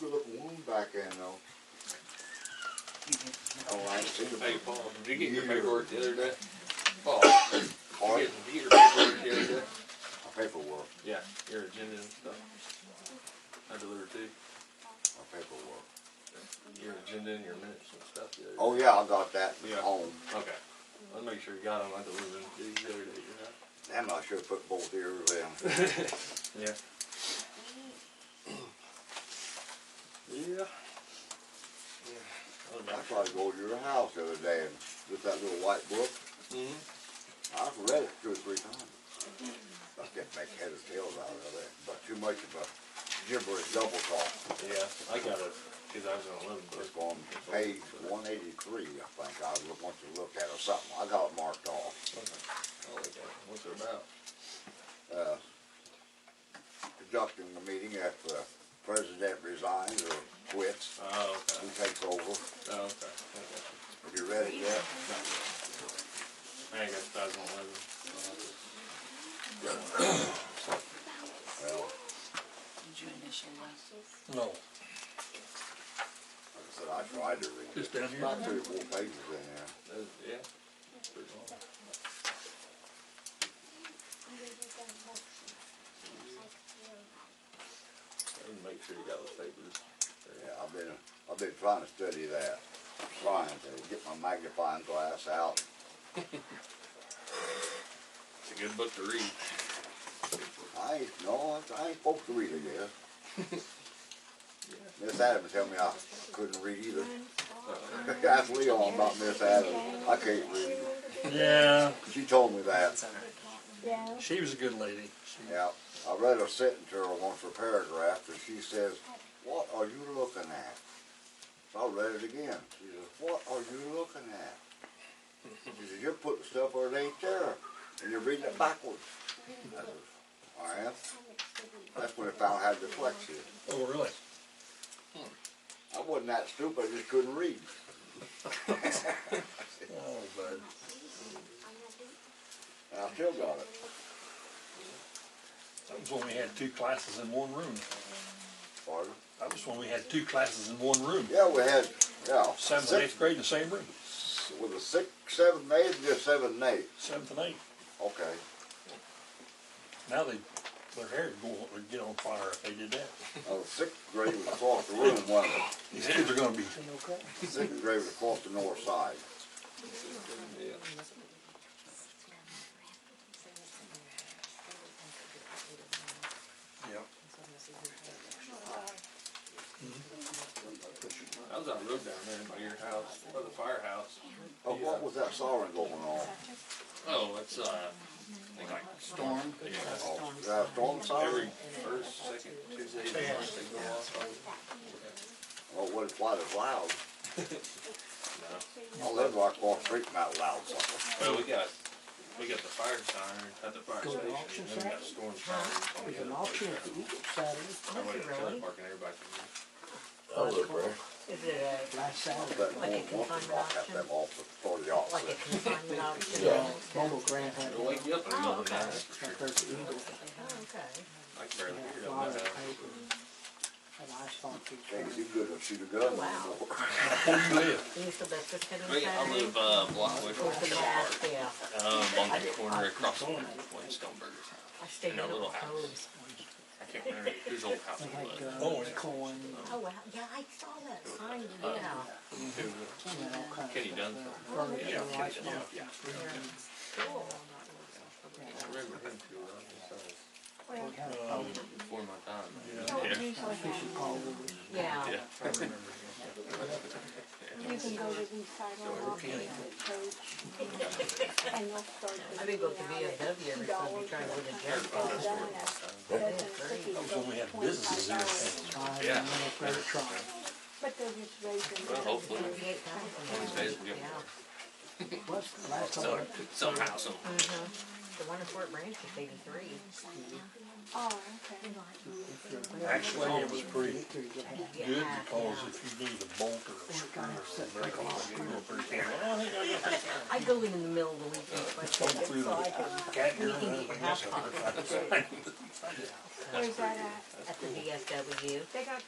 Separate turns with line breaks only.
good looking wound back in though. Oh, I see
Hey,
them.
Paul, did you get your
Yeah.
paperwork the other day? Paul, did you
Hard
get, did you get your paperwork the other day?
paperwork,
Yeah, your agenda and stuff. I delivered to you,
my paperwork.
your agenda and your minutes and stuff the other day.
Oh, yeah, I got that
Yeah.
home.
Okay. Let's make sure you got them. I delivered them to you the other day, you know?
Damn, I should've put both ears in.
Yeah. Yeah.
I tried to go to your house the other day and with that little white book,
Mm-hmm.
I've read it two or three times. I can't make head or tails out of it, but too much of a gibberish double talk.
Yeah, I got it, cause I was gonna live
It's
book.
on page one eighty-three, I think, I look- want you to look at or something, I got it marked off.
Oh, What's it about?
uh, conducting the meeting if the president resigns or quits,
Oh,
who
okay,
takes over.
oh, okay, okay.
Have you read it yet?
I guess two thousand eleven.
Well,
Did you initial that?
No,
like I said, I tried to read it.
just down here.
About three or four pages in there.
Yeah. Pretty long. And make sure you got those papers.
Yeah, I've been, I've been trying to study that, trying to get my magnifying glass out.
It's a good book to read.
I ain't, no, I ain't supposed to read it yet.
Yeah.
Miss Adams tell me I couldn't read either. Ask Leon about Miss Adams, I can't read.
Yeah,
She told me that.
Yeah.
she was a good lady. She-
Yeah, I read a sentence to her once, a paragraph, and she says, what are you looking at? So I read it again. She says, what are you looking at? She says, you're putting stuff where it ain't there, and you're reading it backwards. I says, I am. That's when I found I had dyslexia.
Oh, really?
I wasn't that stupid, I just couldn't read.
Oh, bud.
And I still got it.
That was when we had two classes in one room.
Pardon?
That was when we had two classes in one room.
Yeah, we had, yeah.
Seventh and eighth grade in the same room,
six- Was it six, seven, and eight, just seven, and eight?
seventh and eighth.
Okay.
Now they, their hair would go, would get on fire if they did that.
Oh, sixth grade was across the room, wasn't it?
These kids are gonna be,
Sixth grade was across the north side.
Yeah.
yeah.
I was on the road down there by your house, by the firehouse.
Oh, what was that siren going on?
Oh, it's, uh, I think like storm. Yeah.
Oh, that storm
Every
siren?
first, second, Tuesday, of the month they go off.
Oh, it wasn't quite as loud.
No.
I live Oh, right across the street from that loud sucker.
Well, we got, we got the fire siren at the fire station, and then we got storm sirens. on the
There's an
other
auction
place.
at the Eagle Saturday,
I went to the trailer
really.
park and everybody can
Is it uh, last Saturday?
That one woman rock had them off the, for the officer.
Yeah. Bobo Grant had
It'll
one.
wake you up in the middle of the night, that's for sure.
Right there at the Eagle.
I can barely hear
Had
it up
a lot
in my
of
house.
paper. An asphalt
Can't do
picture.
good to shoot a gun anymore.
Wow.
Where you live?
We- I live, uh, a block away from the trailer park, um, on the corner across from Stone Burgers.
I stayed
In a
up
little
with
house.
those.
I can't remember whose old house
They
it was.
had
Oh,
guns,
yeah.
corn,
Oh, wow, yeah, I saw that sign, yeah.
Who-
and all kinds of.
Kenny Dunsmore.
stuff. Furniture,
Yeah, Kenny
lights,
Dunsmore, yeah.
Cool.
I remember him too, well, he was
They had a phone,
before my time.
Yeah.
fishing pole with
Yeah.
Yeah.
I remember
You can go to east side on off the church. And they'll start.
I think go to VFW every Sunday, trying to get a job.
That was when we had businesses here. in town.
five
Yeah.
and a credit card.
But they're just raising.
Well, hopefully, one
Twenty-eight thousand.
of these days we'll get more.
Plus, the last time,
Some- Somehow, some,
The one in Fort Branch is eighty-three.
Oh, okay.
if you're there,
Actually, it was pretty
you could get half.
good because if you need a bolt or a screw or a brick, you go pretty far. Well, I think I got this.
I go in in the middle of the week, and I
Come through
so I
the
can,
cat ear
you
and
can get your
everything else.
half pocket at
Where's that at?
the VFW.
They got